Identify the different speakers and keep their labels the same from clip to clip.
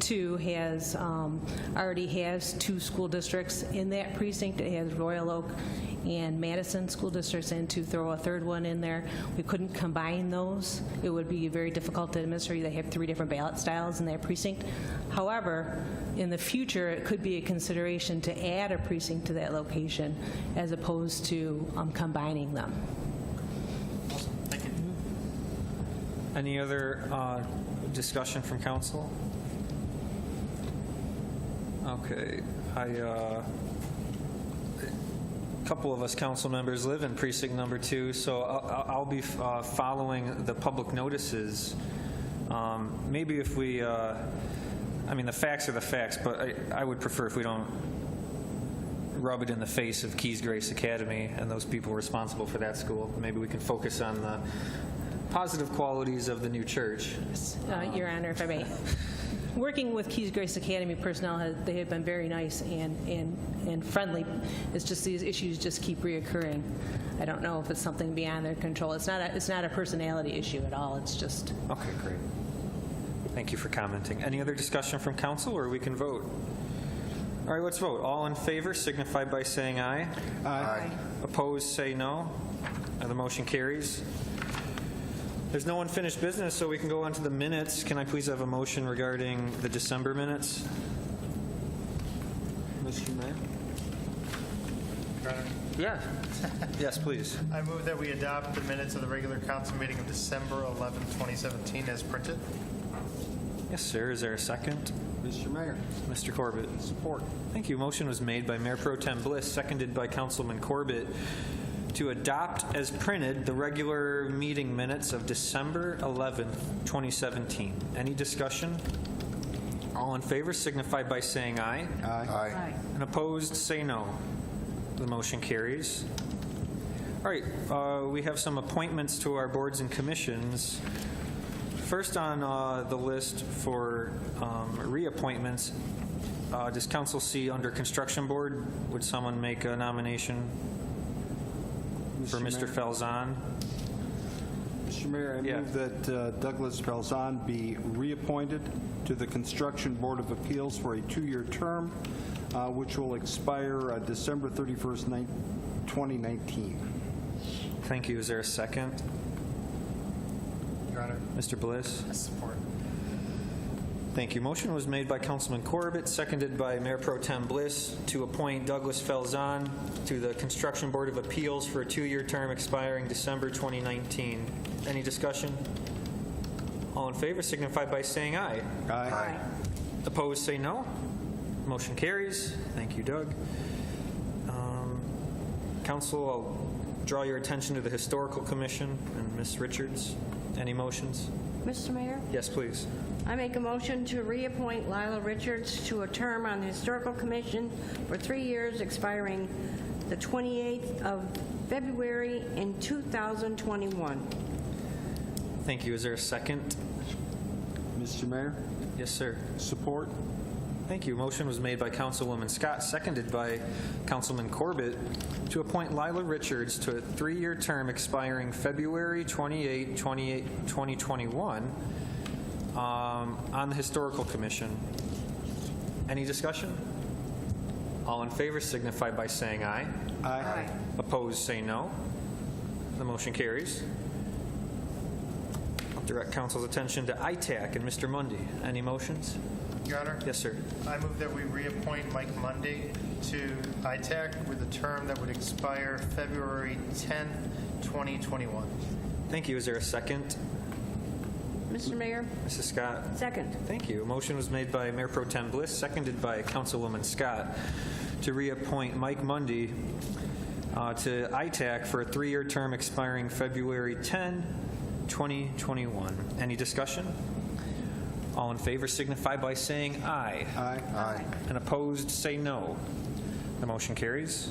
Speaker 1: two has, um, already has two school districts in that precinct. It has Royal Oak and Madison school districts, and to throw a third one in there, we couldn't combine those. It would be very difficult to administer. They have three different ballot styles in that precinct. However, in the future, it could be a consideration to add a precinct to that location as opposed to um, combining them.
Speaker 2: Any other uh, discussion from council? Okay, I, uh, a couple of us council members live in precinct number two, so I'll- I'll I'll be uh, following the public notices. Um, Maybe if we, uh, I mean, the facts are the facts, but I- I would prefer if we don't rub it in the face of Keys Grace Academy and those people responsible for that school. Maybe we can focus on the positive qualities of the new church.
Speaker 1: Uh, Your Honor, if I may. Working with Keys Grace Academy personnel, has- they have been very nice and, and and friendly. It's just these issues just keep reoccurring. I don't know if it's something beyond their control. It's not, a it's not a personality issue at all. It's just,
Speaker 2: Okay, great. Thank you for commenting. Any other discussion from council, or we can vote? All right, let's vote. All in favor signify by saying aye. Aye. Opposed, say no. And the motion carries. There's no unfinished business, so we can go on to the minutes. Can I please have a motion regarding the December minutes? Mr. Mayor? Yeah. Yes, please.
Speaker 3: I move that we adopt the minutes of the regular council meeting of December 11, 2017 as printed.
Speaker 2: Yes, sir. Is there a second?
Speaker 4: Mr. Mayor,
Speaker 2: Mr. Corbett?
Speaker 4: support.
Speaker 2: Thank you. Motion was made by Mayor Pro Tem Bliss, seconded by Councilman Corbett, to adopt as printed the regular meeting minutes of December 11th, 2017. Any discussion? All in favor signify by saying aye.
Speaker 4: Aye.
Speaker 2: And opposed, say no. The motion carries. All right, uh, we have some appointments to our boards and commissions. First on uh, the list for um, reappointments, uh, does council see under construction board, would someone make a nomination for Mr.
Speaker 4: Mayor.
Speaker 2: Falzon?
Speaker 4: Mr. Mayor, I
Speaker 2: Yeah.
Speaker 4: move that uh, Douglas Belzon be reappointed to the Construction Board of Appeals for a two-year term, uh, which will expire uh, December 31st, nine- 2019.
Speaker 2: Thank you. Is there a second?
Speaker 3: Your Honor,
Speaker 2: Mr. Bliss?
Speaker 3: I support.
Speaker 2: Thank you. Motion was made by Councilman Corbett, seconded by Mayor Pro Tem Bliss, to appoint Douglas Felzahn to the Construction Board of Appeals for a two-year term expiring December 2019. Any discussion? All in favor signify by saying aye.
Speaker 4: Aye.
Speaker 2: Opposed, say no. Motion carries. Thank you, Doug. Um, Council, I'll draw your attention to the Historical Commission and Ms. Richards. Any motions?
Speaker 5: Mr. Mayor,
Speaker 2: Yes, please.
Speaker 5: I make a motion to reappoint Lila Richards to a term on the Historical Commission for three years, expiring the 28th of February in 2021.
Speaker 2: Thank you. Is there a second?
Speaker 4: Mr. Mayor,
Speaker 2: Yes, sir.
Speaker 4: support.
Speaker 2: Thank you. Motion was made by Councilwoman Scott, seconded by Councilman Corbett, to appoint Lila Richards to a three-year term expiring February 28, 28, 2021, um, on the Historical Commission. Any discussion? All in favor signify by saying aye.
Speaker 4: Aye.
Speaker 2: Opposed, say no. The motion carries. I'll Direct council's attention to ITAC and Mr. Mundy. Any motions?
Speaker 3: Your Honor?
Speaker 2: Yes, sir.
Speaker 3: I move that we reappoint Mike Monday to ITAC with a term that would expire February 10, 2021.
Speaker 2: Thank you. Is there a second?
Speaker 5: Mr. Mayor,
Speaker 2: Mrs. Scott?
Speaker 5: second.
Speaker 2: Thank you. A motion was made by Mayor Pro Tem Bliss, seconded by Councilwoman Scott, to reappoint Mike Mundy uh, to ITAC for a three-year term expiring February 10, 2021. Any discussion? All in favor signify by saying aye.
Speaker 4: Aye. Aye.
Speaker 2: And opposed, say no. The motion carries.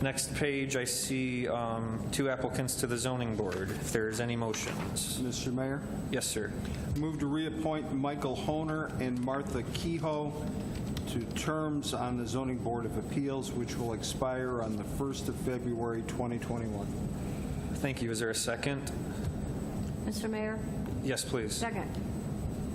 Speaker 2: Next page, I see um, two applicants to the zoning board. If there's any motions.
Speaker 4: Mr. Mayor,
Speaker 2: Yes, sir.
Speaker 4: move to reappoint Michael Honer and Martha Kehoe to terms on the Zoning Board of Appeals, which will expire on the 1st of February, 2021.
Speaker 2: Thank you. Is there a second?
Speaker 5: Mr. Mayor,
Speaker 2: Yes, please.
Speaker 5: second.